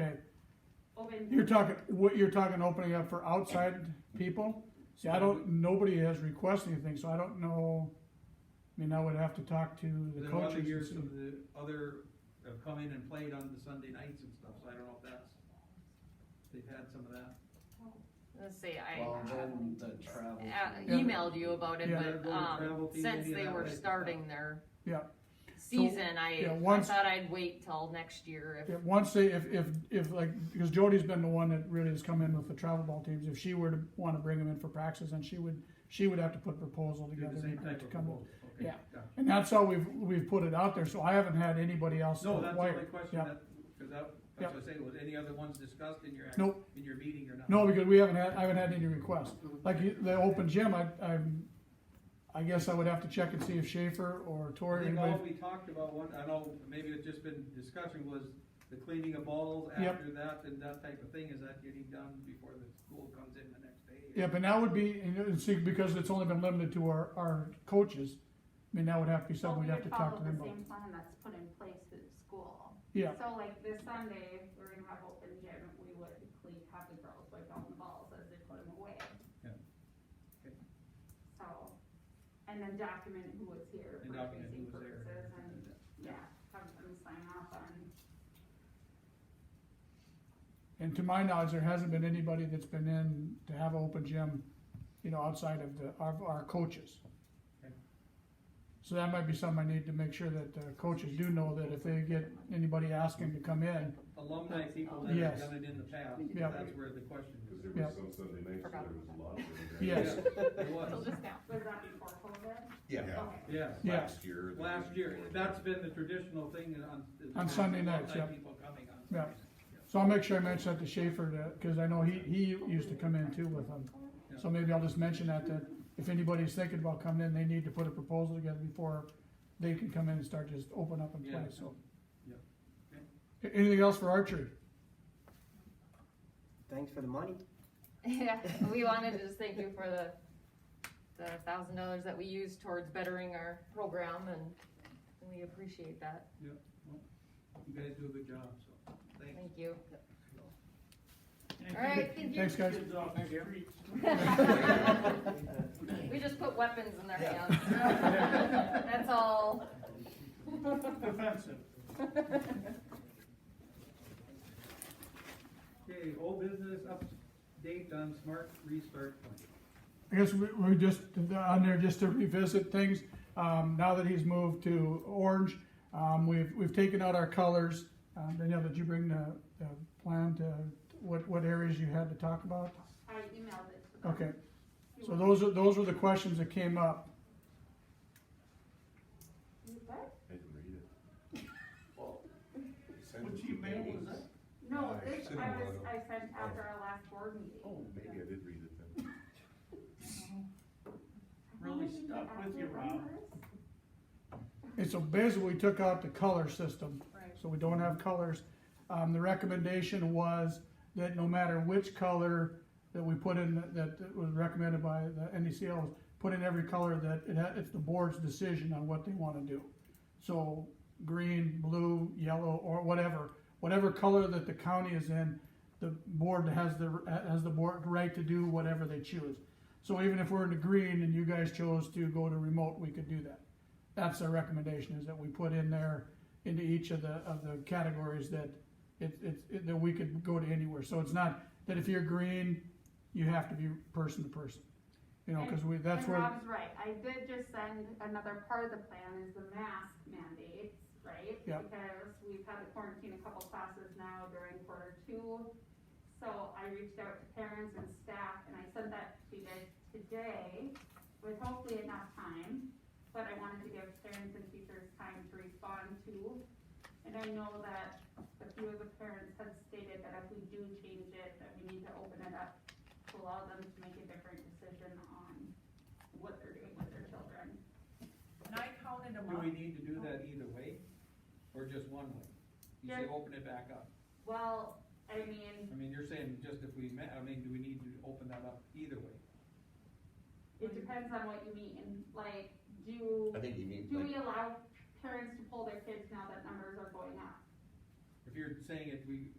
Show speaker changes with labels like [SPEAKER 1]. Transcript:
[SPEAKER 1] Okay,
[SPEAKER 2] open,
[SPEAKER 1] you're talking, what, you're talking opening up for outside people? See, I don't, nobody has requested anything, so I don't know, I mean, I would have to talk to the
[SPEAKER 3] Then
[SPEAKER 1] coaches.
[SPEAKER 3] other
[SPEAKER 1] and
[SPEAKER 3] years
[SPEAKER 1] see.
[SPEAKER 3] of the other have come in and played on the Sunday nights and stuff, so I don't know if that's, they've had some of that.
[SPEAKER 4] Let's see,
[SPEAKER 5] Well,
[SPEAKER 4] I
[SPEAKER 5] then the travel.
[SPEAKER 4] uh,
[SPEAKER 5] fee.
[SPEAKER 1] Yeah.
[SPEAKER 4] emailed you about it,
[SPEAKER 1] Yeah.
[SPEAKER 4] but, um, since they were starting their
[SPEAKER 1] Yeah.
[SPEAKER 4] season, I,
[SPEAKER 1] yeah,
[SPEAKER 4] I
[SPEAKER 1] once-
[SPEAKER 4] thought I'd wait till next year
[SPEAKER 1] Yeah,
[SPEAKER 4] if,
[SPEAKER 1] once they, if, if, if like, because Jody's been the one that really has come in with the travel ball teams, if she were to wanna bring them in for practices, then she would, she would have to put a proposal
[SPEAKER 3] Do
[SPEAKER 1] together.
[SPEAKER 3] the same
[SPEAKER 1] to
[SPEAKER 3] type of
[SPEAKER 1] come in.
[SPEAKER 3] proposal, okay.
[SPEAKER 1] Yeah.
[SPEAKER 3] gotcha.
[SPEAKER 1] And that's how we've, we've put it out there, so I haven't had anybody else.
[SPEAKER 3] No, that's the
[SPEAKER 1] inquire.
[SPEAKER 3] only question
[SPEAKER 1] Yeah.
[SPEAKER 3] that, cause that,
[SPEAKER 1] Yeah.
[SPEAKER 3] that's what I say, was any other ones discussed in your, act-
[SPEAKER 1] Nope.
[SPEAKER 3] in your meeting or not?
[SPEAKER 1] No, because we haven't had, I haven't had any requests. Like you- the open gym, I, I'm, I guess I would have to check and see if Schaefer or
[SPEAKER 3] I
[SPEAKER 1] Tori,
[SPEAKER 3] think all
[SPEAKER 1] anybody,
[SPEAKER 3] we talked about, one, I know, maybe it's just been discussion was the cleaning of balls
[SPEAKER 1] Yep.
[SPEAKER 3] after that and that type of thing, is that getting done before the school comes in the next day?
[SPEAKER 1] yeah, but that would be, and you know, see, because it's only been limited to our, our coaches, I mean, that would have to be
[SPEAKER 6] Well,
[SPEAKER 1] something we'd
[SPEAKER 6] we
[SPEAKER 1] have to talk to them
[SPEAKER 6] Follow
[SPEAKER 1] about.
[SPEAKER 6] the same plan that's put in place through the school.
[SPEAKER 1] Yeah,
[SPEAKER 6] So like this Sunday, if we're gonna have open gym, we would clean, have the girls wipe down the balls as they put them away.
[SPEAKER 3] Yeah. Okay.
[SPEAKER 6] So, and then document who was here
[SPEAKER 3] And
[SPEAKER 6] for
[SPEAKER 3] document who
[SPEAKER 6] tracing
[SPEAKER 3] was there.
[SPEAKER 6] purposes and, yeah, have them sign off on.
[SPEAKER 1] and to my knowledge, there hasn't been anybody that's been in to have an open gym, you know, outside of the, our, our coaches.
[SPEAKER 3] Okay.
[SPEAKER 1] So that might be something I need to make sure that the coaches do know that if they get anybody asking to come in,
[SPEAKER 3] Alumni people that have
[SPEAKER 1] Yes.
[SPEAKER 3] done it in the past,
[SPEAKER 1] Yeah.
[SPEAKER 3] that's where the question
[SPEAKER 7] Cause
[SPEAKER 3] is.
[SPEAKER 7] there
[SPEAKER 1] Yeah.
[SPEAKER 7] was some Sunday nights, where
[SPEAKER 4] Forgot
[SPEAKER 7] there was a lot of them.
[SPEAKER 1] Yes.
[SPEAKER 3] It
[SPEAKER 4] till
[SPEAKER 3] was,
[SPEAKER 4] just now.
[SPEAKER 6] Was that before COVID?
[SPEAKER 7] Yeah.
[SPEAKER 6] Okay.
[SPEAKER 3] yes.
[SPEAKER 1] Yeah.
[SPEAKER 7] Last year. the
[SPEAKER 3] Last year,
[SPEAKER 7] before.
[SPEAKER 3] that's been the traditional thing on.
[SPEAKER 1] On Sunday nights,
[SPEAKER 3] alumni
[SPEAKER 1] yeah.
[SPEAKER 3] People coming on.
[SPEAKER 1] Yeah.
[SPEAKER 3] Sundays.
[SPEAKER 1] So I'll make sure I mention that to Schaefer, to- cause I know he, he used to come in too with them. So maybe I'll just mention that, that if anybody's thinking about coming in, they need to put a proposal together before they can come in and start just open up and play,
[SPEAKER 3] Yeah.
[SPEAKER 1] so.
[SPEAKER 3] Yep.
[SPEAKER 1] A- Anything else for archery?
[SPEAKER 8] Thanks for the money.
[SPEAKER 4] Yeah, we wanted to just thank you for the, the thousand dollars that we used towards bettering our program and we appreciate that,
[SPEAKER 3] You guys do a good job, so, thanks.
[SPEAKER 4] thank you. Alright, thank you.
[SPEAKER 1] Thanks, guys.
[SPEAKER 4] We just put weapons in their hands. That's all.
[SPEAKER 3] Okay, old business update on smart restart plan.
[SPEAKER 1] I guess we, we just, on there just to revisit things, um, now that he's moved to orange, um, we've, we've taken out our colors. Um, Danielle, did you bring the, the plan to, what, what areas you had to talk about?
[SPEAKER 6] I emailed it to them.
[SPEAKER 1] Okay, so those are, those were the questions that came up.
[SPEAKER 6] You what?
[SPEAKER 7] I didn't read it. You sent
[SPEAKER 3] What
[SPEAKER 7] it
[SPEAKER 3] you
[SPEAKER 7] to
[SPEAKER 3] mailed
[SPEAKER 7] me.
[SPEAKER 3] was that?
[SPEAKER 6] No,
[SPEAKER 7] Uh,
[SPEAKER 6] this, I
[SPEAKER 7] cinema.
[SPEAKER 6] was, I sent after our last board meeting.
[SPEAKER 7] Oh, maybe I did read it then.
[SPEAKER 3] Really stuck with you, Rob.
[SPEAKER 1] And so basically, we took out the color system.
[SPEAKER 4] Right.
[SPEAKER 1] So we don't have colors. Um, the recommendation was that no matter which color that we put in, that that was recommended by the NDCL, was put in every color that it had, it's the board's decision on what they wanna do. So green, blue, yellow, or whatever, whatever color that the county is in, the board has the, has the board right to do whatever they choose. So even if we're in the green and you guys chose to go to remote, we could do that. That's their recommendation, is that we put in there into each of the, of the categories that it, it, it- that we could go to anywhere. So it's not that if you're green, you have to be person to person. You know, cause we, that's
[SPEAKER 6] And
[SPEAKER 1] where.
[SPEAKER 6] Rob's right, I did just send another part of the plan is the mask mandates, right?
[SPEAKER 1] Yeah.
[SPEAKER 6] Because we've had to quarantine a couple classes now during quarter two. So I reached out to parents and staff and I sent that to you guys today with hopefully enough time. But I wanted to give parents and teachers time to respond to. And I know that a few of the parents had stated that if we do change it, that we need to open it up to allow them to make a different decision on what they're doing with their children.
[SPEAKER 9] And I counted them
[SPEAKER 3] Do
[SPEAKER 9] up.
[SPEAKER 3] we need to do that either way, or just one way? You say
[SPEAKER 6] Yeah.
[SPEAKER 3] open it back up.
[SPEAKER 6] Well, I mean,
[SPEAKER 3] I mean, you're saying just if we met, I mean, do we need to open that up either way?
[SPEAKER 6] it depends on what you mean, like, do,
[SPEAKER 5] I think you need,
[SPEAKER 6] do
[SPEAKER 5] like,
[SPEAKER 6] we allow parents to pull their kids now that numbers are going up?
[SPEAKER 3] If you're saying if we